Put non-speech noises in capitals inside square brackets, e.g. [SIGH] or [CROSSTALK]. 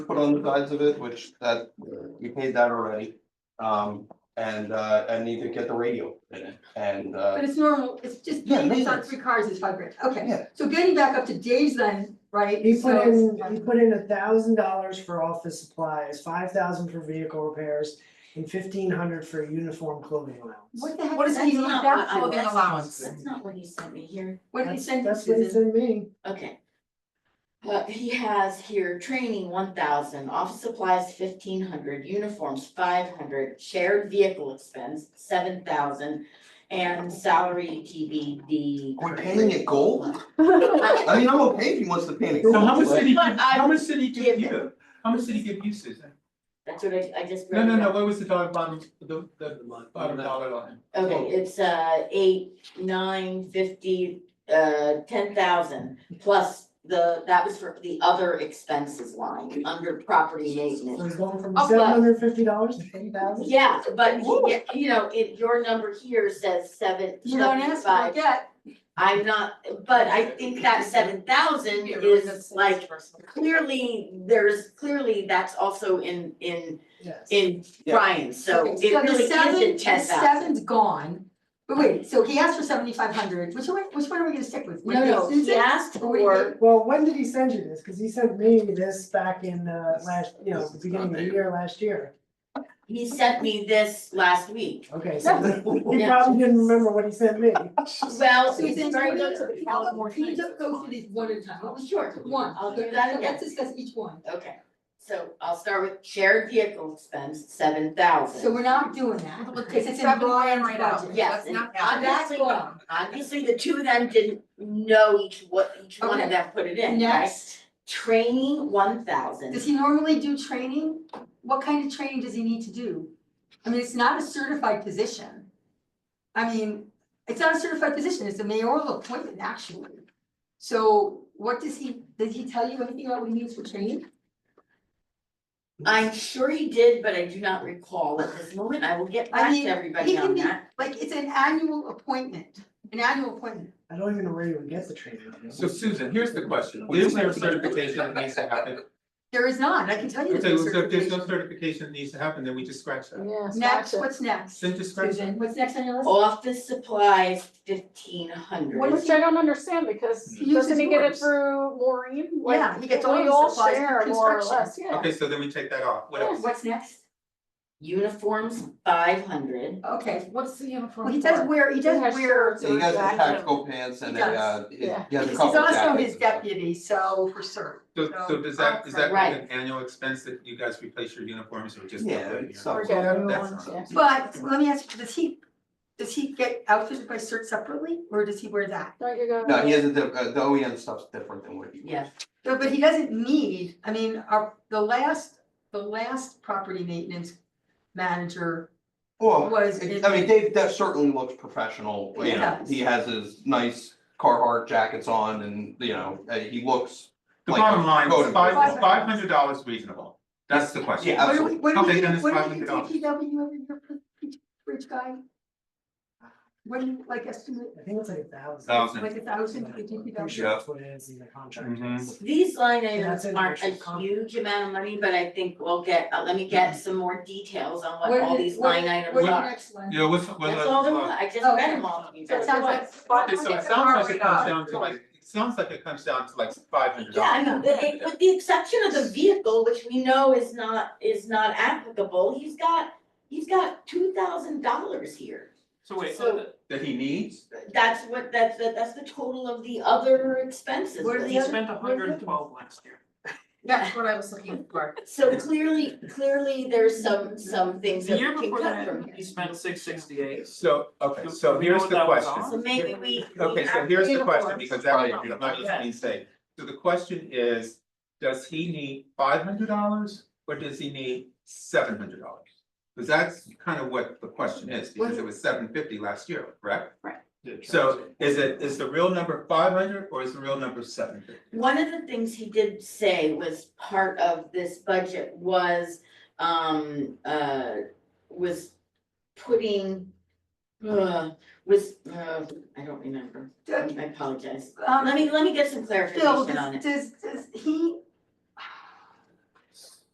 put on the sides of it, which that, we paid that already. Um, and uh, I need to get the radio in it and But uh, it's normal, it's just, Yeah, Dave's on maintenance. three cars is five grand, Yeah. okay, so getting back up to Dave's then, right? He put so- in, he put in a thousand dollars for office supplies, five thousand for vehicle repairs, and fifteen hundred for uniform clothing allowance. What the heck? What is did he he leave not, that for? clothing That's- allowance? That's not what he sent me here. What did he That's- send to That's what he Susan? sent me. Okay. But he has here training one thousand, office supplies fifteen hundred, uniforms five hundred, shared vehicle expense seven thousand. And salary TBD. we're painting it [LAUGHS] gold? I mean, I'm okay if he wants to paint it. So how much gold, did he, But give- I how much did he give give you? How much did he give you, Susan? That's what I I just. No, no, wrote no, down. what was the dollar bottom, the the bottom dollar line? Okay, it's uh eight, nine, fifty, uh ten thousand plus the, that was for the other expenses line under property maintenance. So he's going from Oh, but- seven hundred fifty dollars to ten thousand? [LAUGHS] Yeah, but he- yeah, you know, it, your number here says seven You don't ask, I seventy-five, get, I'm not, but I think that seven thousand is like, clearly, there's, clearly, that's also in, in, Yes. in Yeah. Brian, so okay, it so the really seven, the isn't ten thousand. seven's gone, but wait, so he asked for seventy-five hundred, which one, which one are we gonna stick with? No, no, he Susan? asked Or what do you for, Well, when did he send you this? Cause he sent me this back in, uh, last, you know, This the is beginning of not the there. year, last year. he sent me this last week, Okay, so he Yeah. probably didn't remember what he sent me. well. Susan, sorry, can we go go to the- can you just go through these one at a time? What was Sure. One, I'll okay, do that again. let's discuss each one, Okay, so I'll start with shared vehicle expense, seven thousand. so we're not doing that, because it's in Brian's budget. Yes, and That's obviously, gone. obviously, the two of them didn't know each what each one Okay. of them put it in, right? Next, Training one thousand. does he normally do training? What kind of training does he need to do? I mean, it's not a certified position. I mean, it's not a certified position, it's a mayoral appointment actually. So what does he, did he tell you anything about what he needs for training? I'm sure he did, but I do not recall at this moment. I will get I back mean, to everybody he can on be- that. Like, it's an annual appointment, an annual appointment. I don't even know where you would get the training. So Susan, here's the question, is there a certification that needs to happen? There is not, I can tell you. Okay, there's so no if there's no certification. certification that needs to happen, then we just scratch that. Next, what's next? Then just scratch that. Susan, what's next on your Oh. list? Office supplies fifteen What hundred. is- Which I don't understand because He doesn't he get it uses yours. through Maureen? Like, Yeah, he gets all we his supplies for share more or construction. less, yeah. Okay, so then we take that off, what else? What's next? Uniforms, five hundred. Okay, What's the uniform well, he does wear, he does has wear. shirts So [LAUGHS] he has the Exactly. tactical pants and He a, uh, he he has a He's couple jackets. also his and stuff. deputy, so for sure. So so does that, is that like Right. an annual expense that you guys replace your uniforms or just? Yeah, put it in so- your- Or get new That's ones, not- yeah. But let me ask you, does he, does he get outfitted by cert separately, or does he wear that? Don't you go? No, he has a, diff- uh, the OEM stuff's different than what he. Yes, But but he doesn't need, I mean, our, the last, the last property maintenance manager, Oh, Well, Was it- it- I mean, Dave, that certainly looks professional, It you know, does. he has his nice Carhartt jackets on and, you know, uh, he looks. The like a bottom line, code is five, enforcement. is five hundred dollars reasonable? That's the question. Yeah, what do we, what do Okay, we, then it's do- what do we do $500. DPW every year for each, for each guy? What do you, like, estimate, I think it's like a thousand. Thousand. like a thousand for the I'm DPW? sure that's what it is in the contract. Mhm. these line That's items in aren't a actual con- huge amount of money, but I think we'll get, uh, let me get some more details on what What all is- these what- line items What's the are. next one? Yeah, what's, what? That's all there was, I just Okay. read them all to you So guys. it's Sounds like- Okay, so it sounds like it comes down to like, it sounds like it comes down to like five hundred Yeah, I know, dollars. the- it- with the exception of the vehicle, which we know is not, is not applicable, he's got, he's got two thousand dollars here. So wait, So- that he needs? That's what, that's, the- that's the total of the other expenses. What are but- the other- spent a hundred and twelve last year. That's what I was looking for. [LAUGHS] So clearly, clearly, there's some, some things The that year we can before cut from that, here. he spent six sixty-eight. So, okay, Do- so do we here's know the that was question. on? So maybe we, we Okay, so have, here's the Uniforms. question, because that Right. might not just being said. So the question is, does he need five hundred dollars or does he need seven hundred dollars? Because that's kind of what the question is, because it was seven fifty last year, right? So is it, is the real number five hundred or is the real number seven fifty? one of the things he did say was part of this budget was, um, uh, was putting, uh, was, uh, I don't remember. I Do- apologize. Um, Let me, let me get some Phil, clarification on does, it. does, does he,